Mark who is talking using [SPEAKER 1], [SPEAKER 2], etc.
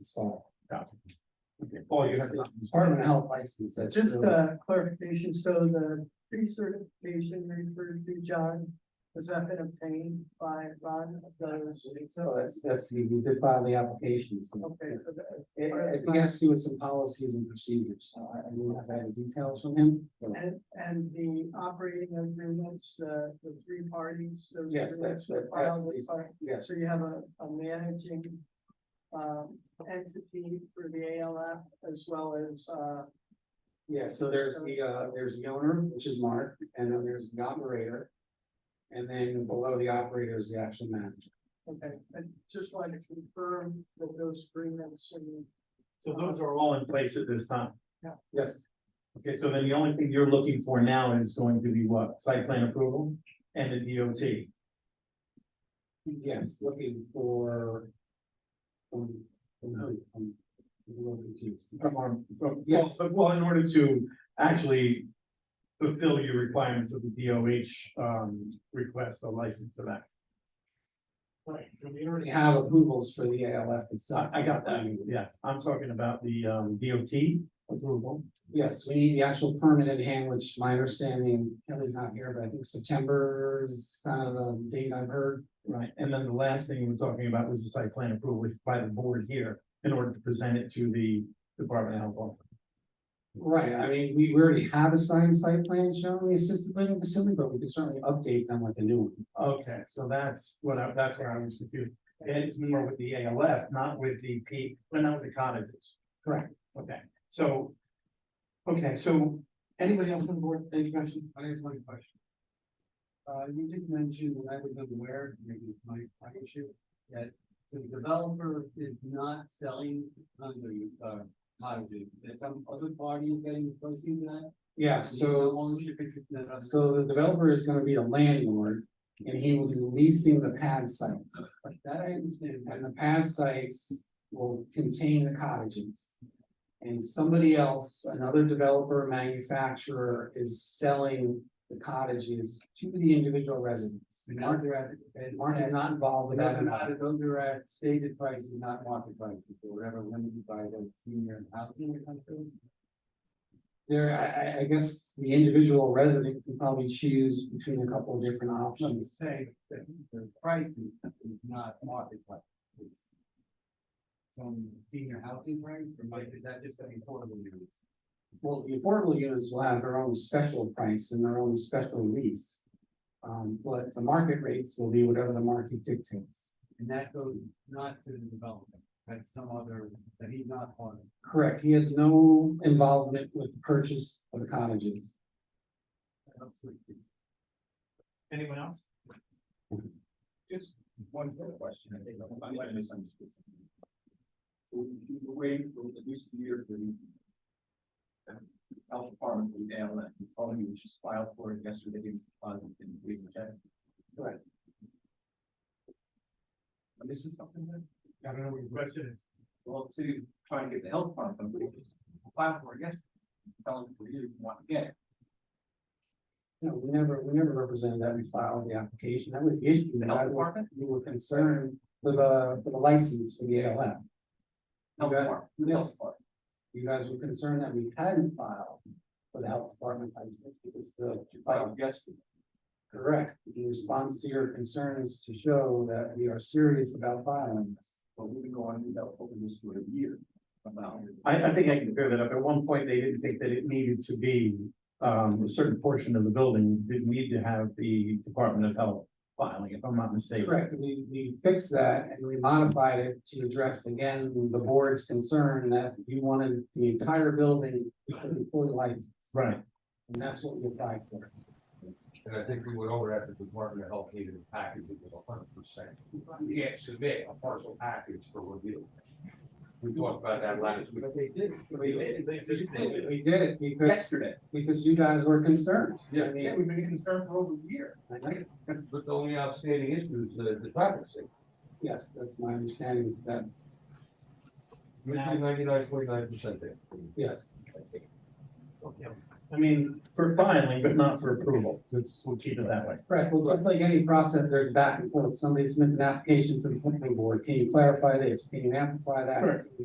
[SPEAKER 1] install.
[SPEAKER 2] Okay.
[SPEAKER 1] Oh, you have the Department of Health license, that's.
[SPEAKER 3] Just uh,
[SPEAKER 1] really-
[SPEAKER 3] a clarification, so the pre-certification referred to John, has that been obtained by Ron of those?
[SPEAKER 1] So that's, that's, we we did file the application, so
[SPEAKER 3] Okay, so that-
[SPEAKER 1] it, I think it has to do with some policies and procedures, so I, I mean, I've had the details from him. but
[SPEAKER 3] and, and the operating agreements, the, the three parties, those
[SPEAKER 1] Yes,
[SPEAKER 3] agreements
[SPEAKER 1] that's-
[SPEAKER 3] were
[SPEAKER 1] that- that's
[SPEAKER 3] filed with
[SPEAKER 1] the-
[SPEAKER 3] our-
[SPEAKER 1] Yes,
[SPEAKER 3] So you have a, a managing, um, entity for the ALF as well as, uh,
[SPEAKER 1] yeah, so there's the, uh, there's the owner, which is Mark, and then there's the operator. And then below the operator is the actual manager.
[SPEAKER 3] okay, I just wanted to confirm that those agreements and
[SPEAKER 2] So those are all in place at this time.
[SPEAKER 1] Yes,
[SPEAKER 2] Okay, so then the only thing you're looking for now is going to be what? Site plan approval and the DOT.
[SPEAKER 1] yes, looking for. um, um, um, I'm a little confused.
[SPEAKER 2] From our, from, well,
[SPEAKER 1] Yes.
[SPEAKER 2] well, in order to actually fulfill your requirements of the DOH, um, request a license for that.
[SPEAKER 1] Right, so we already have approvals for the ALF itself.
[SPEAKER 2] I, I got that, yeah. I'm talking about the, um, DOT approval.
[SPEAKER 1] Yes, we need the actual permit in hand, which my understanding, Kelly's not here, but I think September is kind of the date I've heard.
[SPEAKER 2] Right, and then the last thing we were talking about was the site plan approval by the board here in order to present it to the Department of Health. Office.
[SPEAKER 1] Right, I mean, we already have a signed site plan showing the assisted living facility, but we can certainly update them with the new one.
[SPEAKER 2] Okay, so that's what I, that's where I was confused. It's more with the ALF, not with the P, but not with the cottages.
[SPEAKER 1] Correct.
[SPEAKER 2] Okay, so. Okay, so
[SPEAKER 1] Anybody else on the board, any questions? I have one question. Uh, you just mentioned, and I was unaware, maybe it's my, my issue, that the developer is not selling condo, uh, cottages. There's some other party is getting close to that? Yeah, so, so the developer is gonna be a landlord, and he will be leasing the pad sites. That I understand. And the pad sites will contain the cottages. And somebody else, another developer, manufacturer is selling the cottages to the individual residents. And Mark, and Mark is not involved with that. at all.
[SPEAKER 4] those are at stated prices, not market prices, or whatever limited by the senior housing or something.
[SPEAKER 1] There, I, I, I guess the individual resident can probably choose between a couple of different
[SPEAKER 4] I'm
[SPEAKER 1] options.
[SPEAKER 4] saying that the pricing is not market price. It's Some senior housing rate, or might, is that just an affordable unit?
[SPEAKER 1] Well, the affordable units will have their own special price and their own special lease. Um, but the market rates will be whatever the market dictates.
[SPEAKER 4] And that goes not to the development, that's some other, that he's not part of.
[SPEAKER 1] Correct, he has no involvement with the purchase of the cottages.
[SPEAKER 4] Absolutely.
[SPEAKER 2] anyone else?
[SPEAKER 4] Just one more question, I think, I might have misunderstood. We were waiting for at least a year for the. um, Health department, the ALM, and all you just filed for it yesterday, uh, on in the week, okay?
[SPEAKER 1] Correct.
[SPEAKER 4] Am I missing something there?
[SPEAKER 2] I don't know what your question is.
[SPEAKER 4] Well, the city was trying to get the health department, but we just filed for it yesterday. Telling them we didn't want to get it.
[SPEAKER 1] No, we never, we never represented that we filed the application. That was the issue.
[SPEAKER 4] The
[SPEAKER 1] that I
[SPEAKER 4] health
[SPEAKER 1] wa-
[SPEAKER 4] department,
[SPEAKER 1] We were concerned with the, with the license for the ALF.
[SPEAKER 4] health
[SPEAKER 1] Okay.
[SPEAKER 4] department, the health department.
[SPEAKER 1] You guys were concerned that we hadn't filed for the health department license because the,
[SPEAKER 4] You filed yesterday.
[SPEAKER 1] correct, the response to your concerns to show that we are serious about filing this.
[SPEAKER 4] But we've been going without open this for a year about.
[SPEAKER 2] I, I think I can clear that up. At one point, they didn't think that it needed to be, um, a certain portion of the building didn't need to have the Department of Health filing, if I'm not mistaken.
[SPEAKER 1] Correct, we, we fixed that and we modified it to address again the board's concern that you wanted the entire building to be fully licensed.
[SPEAKER 2] Right,
[SPEAKER 1] And that's what we applied for.
[SPEAKER 5] And I think we went over that, the Department of Health needed a package that was a hundred percent. You can't submit a partial package for review. We talked about that last week.
[SPEAKER 4] But they did.
[SPEAKER 1] We did,
[SPEAKER 4] They did.
[SPEAKER 1] we did it because,
[SPEAKER 4] Yesterday.
[SPEAKER 1] because you guys were concerned. I
[SPEAKER 5] Yeah.
[SPEAKER 1] mean,
[SPEAKER 4] we've been concerned for over a year.
[SPEAKER 1] I know.
[SPEAKER 5] But the only outstanding issue is the, the traffic signal.
[SPEAKER 1] Yes, that's my understanding is that,
[SPEAKER 5] Ninety-nine, forty-nine percent there.
[SPEAKER 1] yes.
[SPEAKER 2] okay. I mean, for filing, but not for approval, Let's we'll keep it that way.
[SPEAKER 1] Correct, well, just like any process, there's back and forth, somebody submits an application to the planning board, can you clarify this, can you amplify that?
[SPEAKER 2] Correct.